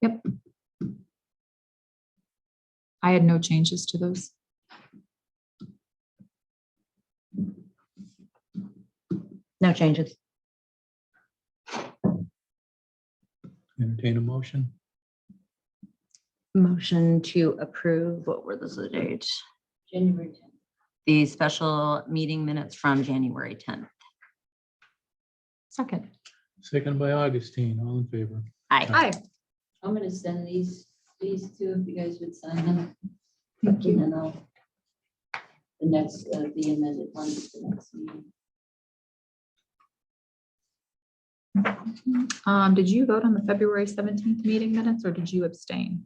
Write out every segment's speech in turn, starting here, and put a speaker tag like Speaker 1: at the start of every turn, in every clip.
Speaker 1: Yep. I had no changes to those.
Speaker 2: No changes.
Speaker 3: Entertain a motion.
Speaker 2: Motion to approve, what were those the dates? January 10th. The special meeting minutes from January 10th.
Speaker 1: Second.
Speaker 3: Second by Augustine, all in favor.
Speaker 2: Aye.
Speaker 1: Hi.
Speaker 4: I'm gonna send these, these two, if you guys would sign them. Thank you. And then I'll, the next, uh, the amended one, is the next meeting.
Speaker 1: Um, did you vote on the February seventeenth meeting minutes or did you abstain?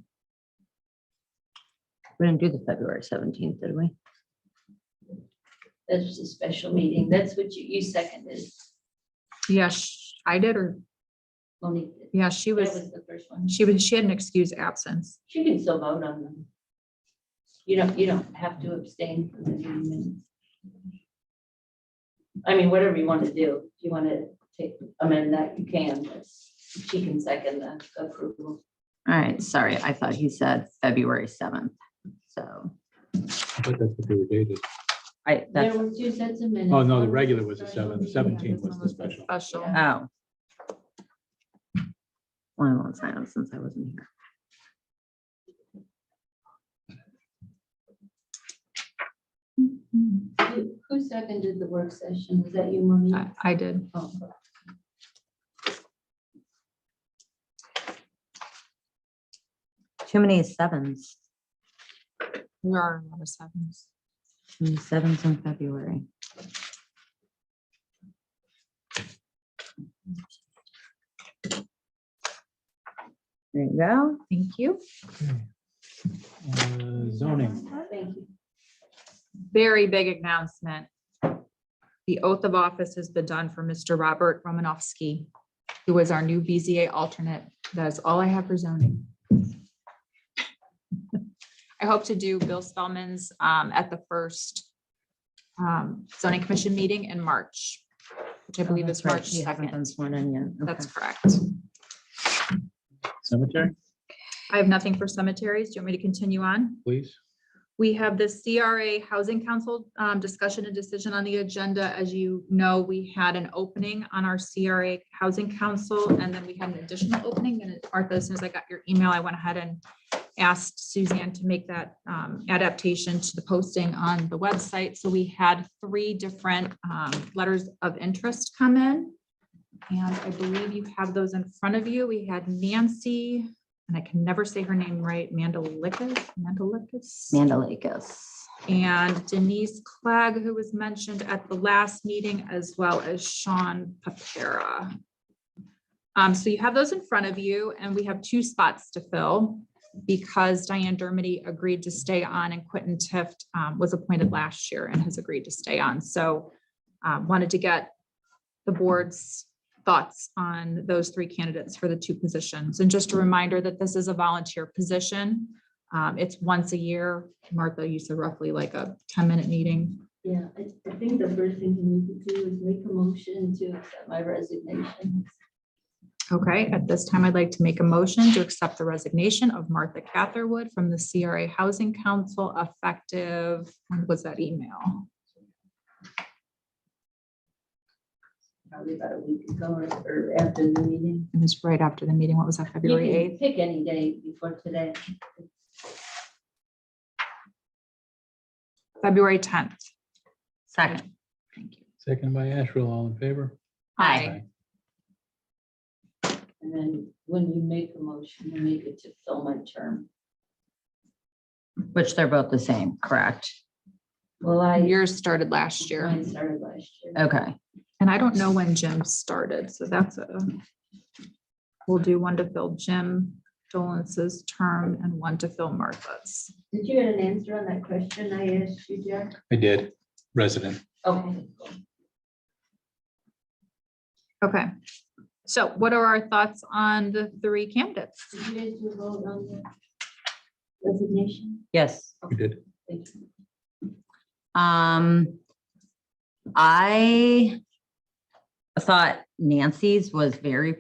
Speaker 2: We didn't do the February 17th, did we?
Speaker 4: That's just a special meeting. That's what you, you seconded,
Speaker 1: Yes, I did, or,
Speaker 4: Monique. did.
Speaker 1: yeah, she
Speaker 4: That
Speaker 1: was,
Speaker 4: was the first one.
Speaker 1: she was, she had an excused absence.
Speaker 4: She can still vote on them. You don't, you don't have to abstain from the meeting minutes. I mean, whatever you want to do. If you want to take, amend that, you can, but she can second the approval.
Speaker 2: All right, sorry, I thought he said February 7th. So
Speaker 3: I thought that's what they were dated.
Speaker 2: I,
Speaker 4: There
Speaker 2: that's,
Speaker 4: were two sets of minutes.
Speaker 3: Oh, no, the
Speaker 4: One
Speaker 3: regular was the
Speaker 4: special
Speaker 3: seventh,
Speaker 4: meeting.
Speaker 3: 17th was
Speaker 1: This
Speaker 3: the
Speaker 1: one
Speaker 3: special.
Speaker 1: Special.
Speaker 4: Yeah.
Speaker 2: oh. Well, I won't sign them since I wasn't here.
Speaker 4: Who- Who seconded the work session? Was that you, Monique?
Speaker 1: I, I did.
Speaker 4: Oh,
Speaker 2: Too many sevens,
Speaker 1: There are a lot of sevens.
Speaker 2: Too many sevens in February. There you go.
Speaker 1: Thank you.
Speaker 3: Uh, Zoning,
Speaker 4: Thank you.
Speaker 1: Very big announcement. The oath of office has been done for Mr. Robert Romanowski, who is our new BZA alternate. That is all I have for zoning. I hope to do Bill Spellman's um, at the first um, zoning commission meeting in March, which I believe is
Speaker 2: Oh, That's right,
Speaker 1: March
Speaker 2: you haven't been
Speaker 1: 2nd.
Speaker 2: sworn in yet. Okay.
Speaker 1: That's correct.
Speaker 3: cemetery,
Speaker 1: I have nothing for cemeteries. Do you want me to continue on?
Speaker 3: please.
Speaker 1: We have the CRA Housing Council um, discussion and decision on the agenda. As you know, we had an opening on our CRA Housing Council, and then we had an additional opening. And Martha, as soon as I got your email, I went ahead and asked Suzanne to make that um, adaptation to the posting on the website. So we had three different um, letters of interest come in. And I believe you have those in front of you. We had Nancy, and I can never say her name right, Mandalikas, Mandalikas.
Speaker 2: Mandalikis.
Speaker 1: And Denise Clegg, who was mentioned at the last meeting, as well as Sean Papera. Um, so you have those in front of you, and we have two spots to fill because Diane Dermody agreed to stay on and Quentin Tift um, was appointed last year and has agreed to stay on. So um, wanted to get the board's thoughts on those three candidates for the two positions. And just a reminder that this is a volunteer position. Um, it's once a year. Martha, you said roughly like a ten-minute meeting.
Speaker 4: Yeah, I, I think the first thing you need to do is make a motion to accept my resignation.
Speaker 1: Okay, at this time, I'd like to make a motion to accept the resignation of Martha Catherwood from the CRA Housing Council effective, when was that email?
Speaker 4: Probably about a week ago or, or after the meeting.
Speaker 1: It was right after the meeting. What was that,
Speaker 4: You
Speaker 1: February
Speaker 4: can
Speaker 1: eighth?
Speaker 4: pick any day before today.
Speaker 1: February tenth.
Speaker 2: Second.
Speaker 1: Thank you.
Speaker 3: Second by Asherle, all in favor.
Speaker 2: Aye.
Speaker 4: And then when you make a motion, you make it to fill my term.
Speaker 2: Which they're both the same, correct?
Speaker 4: Well, I,
Speaker 1: Yours started last year, Oh.
Speaker 4: I started last year.
Speaker 2: Okay.
Speaker 1: and I don't know when Jim started, so that's a, we'll do one to fill Jim Dolan's term and one to fill Martha's.
Speaker 4: Did you get an answer on that question I asked you, Jack?
Speaker 3: I did, resident.
Speaker 4: Okay.
Speaker 1: Okay, so what are our thoughts on the three candidates?
Speaker 4: Did you guys do a vote on the resignation?
Speaker 2: Yes.
Speaker 3: We did.
Speaker 4: Thank you.
Speaker 2: Um, I thought Nancy's was very